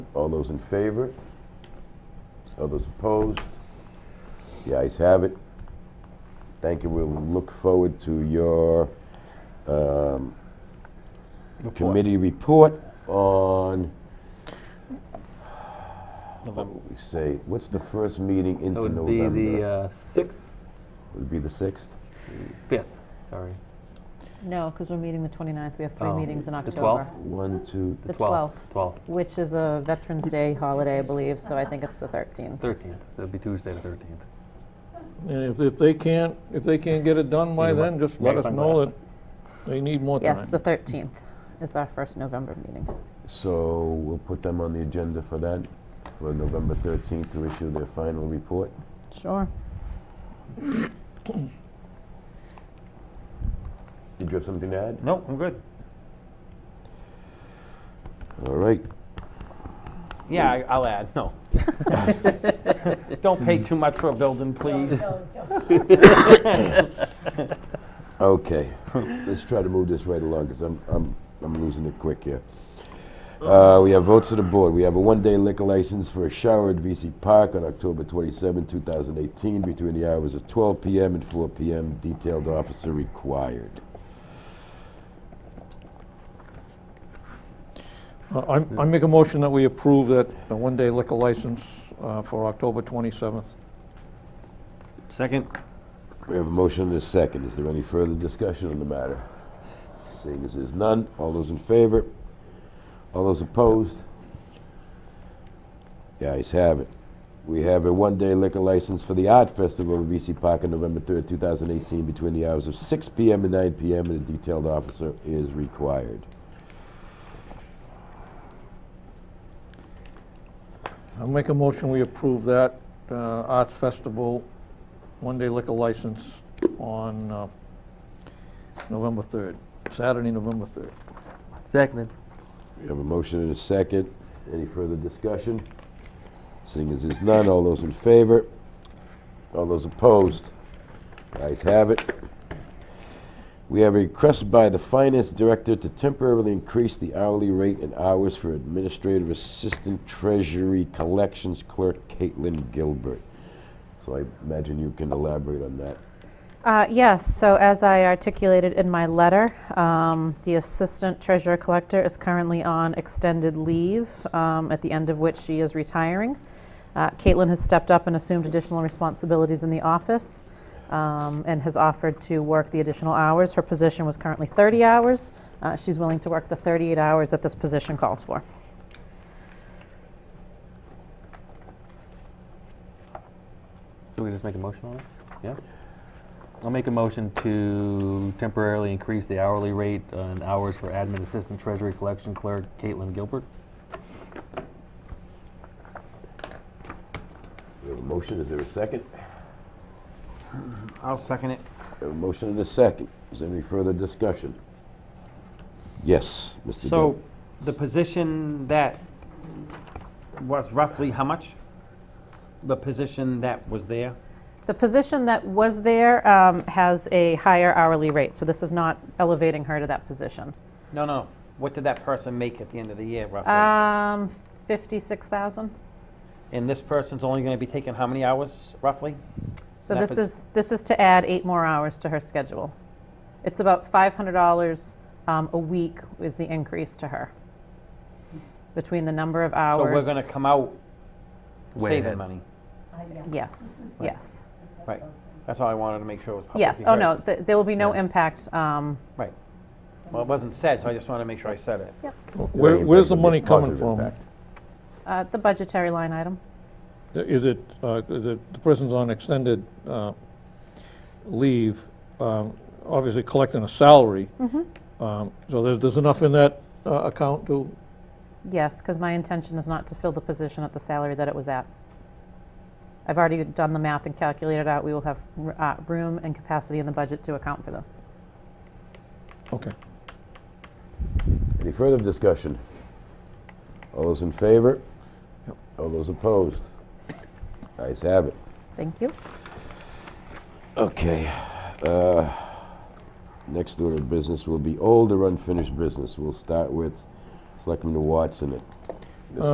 All those in favor? All those opposed? The ayes have it. Thank you. We'll look forward to your um, committee report on, November. we say, what's the first meeting That into would be the November? uh, sixth, Would be the 6th? fifth, sorry. No, because we're meeting the 29th, we have three Oh, meetings in the October. 12th? One, two, The 12th, 12th, 12th, which is a Veterans Day holiday, I believe, so I think it's the 13th. 13th. That'd be Tuesday, the 13th. And if, if they can't, if they can't get it done by Either way, then, just let us magnifying know glass. that they need more Yes, time. the 13th is our first November meeting. so we'll put them on the agenda for that, for November 13th to issue their final report. Sure. Did you have something to add? No, I'm good. All right. Yeah, I- I'll add, no. Don't pay too much for a building, please. Okay, let's try to move this right along, because I'm, I'm, I'm losing it quick here. Uh, we have votes of the board. We have a one-day liquor license for a shower at VC Park on October 27, 2018, between the hours of 12 PM and 4 PM, detailed officer required. Uh, I, I make a motion that we approve that uh, one-day liquor license uh, for October 27th. Second? We have a motion and a second. Is there any further discussion on the matter? Seeing as there's none, all those in favor? All those opposed? The ayes have it. We have a one-day liquor license for the Art Festival in VC Park on November 3rd, 2018, between the hours of 6 p.m. and 9 p.m., and a detailed officer is required. I make a motion we approve that uh, Arts Festival one-day liquor license on uh, November 3rd, Saturday, November 3rd. Seconded. We have a motion and a second. Any further discussion? Seeing as there's none, all those in favor? All those opposed? The ayes have it. We have a request by the finance director to temporarily increase the hourly rate and hours for administrative assistant treasury collections clerk Caitlin Gilbert. So I imagine you can elaborate on that. Uh, Yes, so as I articulated in my letter, um, the Assistant Treasurer Collector is currently on extended leave, um, at the end of which she is retiring. Uh, Caitlin has stepped up and assumed additional responsibilities in the office um, and has offered to work the additional hours. Her position was currently 30 hours. Uh, She's willing to work the 38 hours that this position calls for. So we just make a motion on it? Yeah? I'll make a motion to temporarily increase the hourly rate and hours for admin assistant treasury collection clerk Caitlin Gilbert. We have a motion, is there a second? I'll second it. We have a motion and a second. Is there any further discussion? Yes, Mr. Dunn. So, the position that was roughly how much? The position that was there? The position that was there um, has a higher hourly rate, so this is not elevating her to that position. No, no, what did that person make at the end of the year roughly? Um, 56,000. And this person's only gonna be taking how many hours roughly? So That this pos- is, this is to add eight more hours to her schedule. It's about $500 um, a week is the increase to her, between the number of So hours. we're gonna come out Way saving ahead. money, Yes, yes, right? That's all I wanted to make sure was publicly yes. Oh, heard. no, th- there will be no Yeah. impact. um, Right. Well, it wasn't said, so I just wanted to make sure I said it. Where, Any where's the positive- money coming positive from? impact. uh, The budgetary line item. Is it, uh, the the person's on extended uh, leave, um, obviously collecting a salary. Um, So there's, there's enough in that uh, account to, Yes, because my intention is not to fill the position at the salary that it was at. I've already done the math and calculated out, we will have r- uh, room and capacity in the budget to account for this. okay. Any further discussion? All those in favor? All those opposed? Ayes have it. Thank you. Okay. uh, Next order of business will be older unfinished business. We'll start with Selectman Watson at